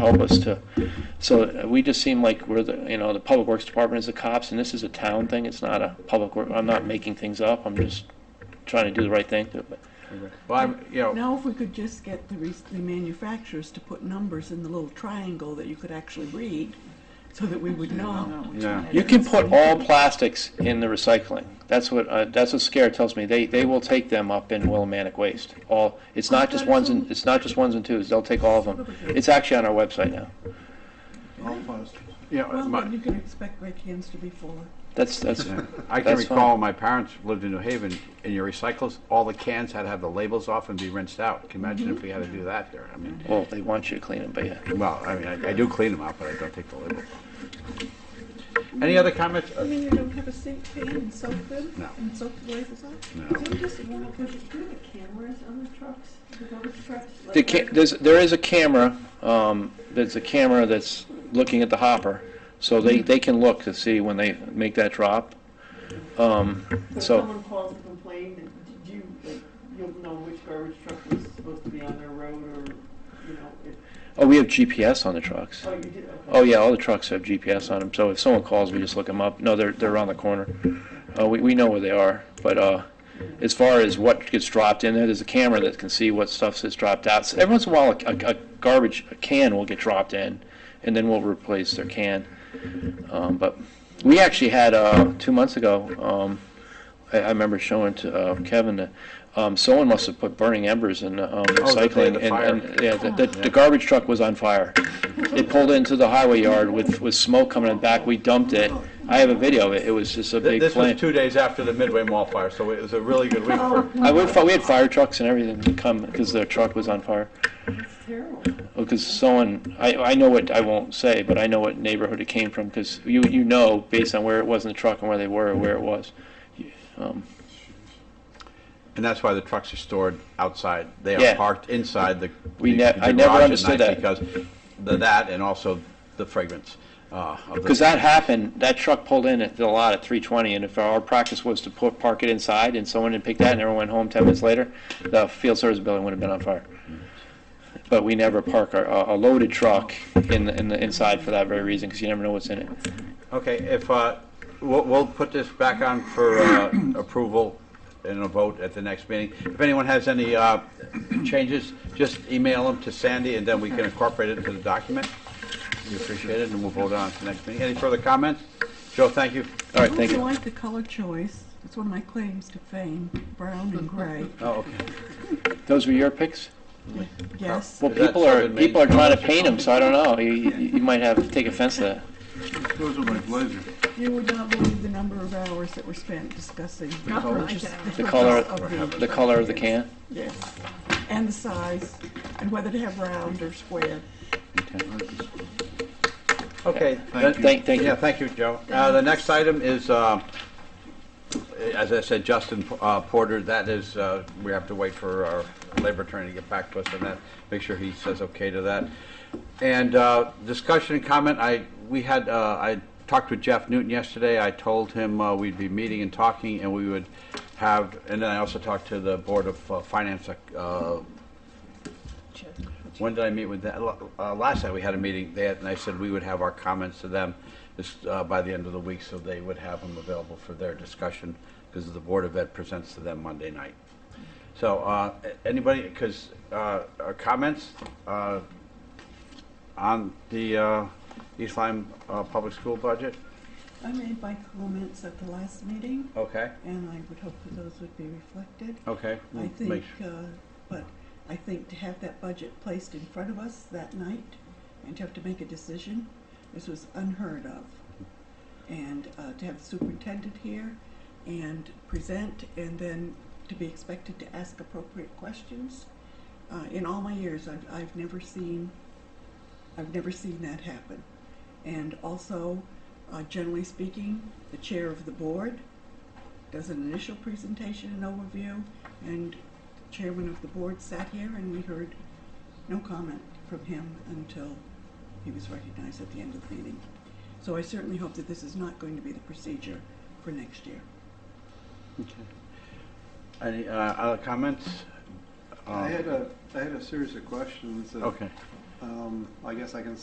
help us to, so we just seem like we're the, you know, the Public Works Department is the cops, and this is a town thing, it's not a public work, I'm not making things up, I'm just trying to do the right thing, but Well, I'm, you know, Now, if we could just get the, re- the manufacturers to put numbers in the little triangle that you could actually read, so that we would know. yeah. You can put all plastics in the recycling. That's what, uh, that's what Scare tells me. They, they will take them up in Willimantic Waste. All, it's not just ones and, it's not just ones and twos. They'll take all of them. It's actually on our website now. Yeah, Well, my- then you can expect great cans to be fuller. That's, that's, I can That's fine. recall my parents lived in New Haven, and your recycles, all the cans had to have the labels off and be rinsed out. Can you imagine if we had to do that here? I mean, well, they want you to clean them, but yeah. well, I mean, I, I do clean them out, but I don't take the labels off. Any other comments? Uh, I mean, you don't have a sink pan and soak them? No. And soak the labels off? No. They just won't put the cameras on the trucks, the garbage trucks. like- The ca- there's, there is a camera, um, there's a camera that's looking at the hopper. So they, they can look to see when they make that drop. Um, if so- someone calls to complain, then do you, like, you'll know which garbage truck was supposed to be on their road or, you know, if, oh, we have GPS on the trucks. oh, you did, okay. Oh, yeah, all the trucks have GPS on them, so if someone calls, we just look them up. No, they're, they're around the corner. Uh, we, we know where they are, but, uh, as far as what gets dropped in there, there's a camera that can see what stuff that's dropped out. So Every once in a while, a, a- a garbage can will get dropped in, and then we'll replace their can. Um, but we actually had, uh, two months ago, um, I, I remember showing to, uh, Kevin, that, um, someone must have put burning embers in, the, um, Oh, the day of recycling. the and- fire. and- Yeah, the, the- the garbage truck was on fire. It pulled into the highway yard with, with smoke coming in back. We dumped it. I have a video of it. It was just a Th- big This was flame. two days after the Midway Mall fire, so it was a really good week for, I would, fi- we had fire trucks and everything come because their truck was on fire. It's terrible. Because someone, I, I know what, I won't say, but I know what neighborhood it came from because you, you know based on where it was in the truck and where they were, where it was. Um, Oh. and that's why the trucks are stored outside. They are Yeah. parked inside the We the- ne- the I never garage at understood night that. Because the, that and also the fragrance, uh, of the Because that happened, that truck pulled in at the lot at 320, and if our practice was to put, park it inside, and someone didn't pick that, and everyone went home 10 minutes later, the field service building would have been on fire. But we never park our, a a loaded truck in, the- in the inside for that very reason, because you never know what's in it. Okay, if, uh, we'll, we'll put this back on for uh, approval and a vote at the next meeting. If anyone has any uh, changes, just email them to Sandy, and then we can incorporate it into the document. We appreciate it, and we'll vote on it at the next meeting. Any further comments? Joe, thank you. All right, thank I also you. like the color choice. It's one of my claims to fame, brown and gray. Oh, okay. Those were your picks? Yes. Well, Is that people are, Southern Maine people are trying to paint them, so I don't know. You, you you might have, take offense to that. Those are my pleasure. You would not believe the number of hours that were spent discussing. The The color, of the color of the can. Yes, and the size, and whether to have round or square. Okay. Thank then- you. Thank, thank Yeah, you. thank you, Joe. Uh, The next item is, uh, as I said, Justin uh, Porter, that is, uh, we have to wait for our labor attorney to get back to us on that, make sure he says okay to that. And uh, discussion and comment, I, we had, uh, I talked with Jeff Newton yesterday, I told him uh, we'd be meeting and talking, and we would have, and then I also talked to the Board of uh, Finance uh, when did I meet with that? Uh, last night we had a meeting, they had, and I said we would have our comments to them this, uh, by the end of the week, so they would have them available for their discussion, because the Board of Ed presents to them Monday night. So, uh, a- anybody, because, uh, uh, comments, uh, on the, uh, East Lyme, uh, public school budget? I made my comments at the last meeting, Okay, and I would hope that those would be reflected. okay. I Make think, sure. uh, but I think to have that budget placed in front of us that night and to have to make a decision, this was unheard of. And uh, to have the superintendent here and present and then to be expected to ask appropriate questions. Uh, In all my years, I've, I've never seen, I've never seen that happen. And also, uh, generally speaking, the chair of the board does an initial presentation and overview, and the chairman of the board sat here and we heard no comment from him until he was recognized at the end of the meeting. So I certainly hope that this is not going to be the procedure for next year. Any, uh, other comments? I Um, had a, I had a series of questions. that Okay, Um, I guess I can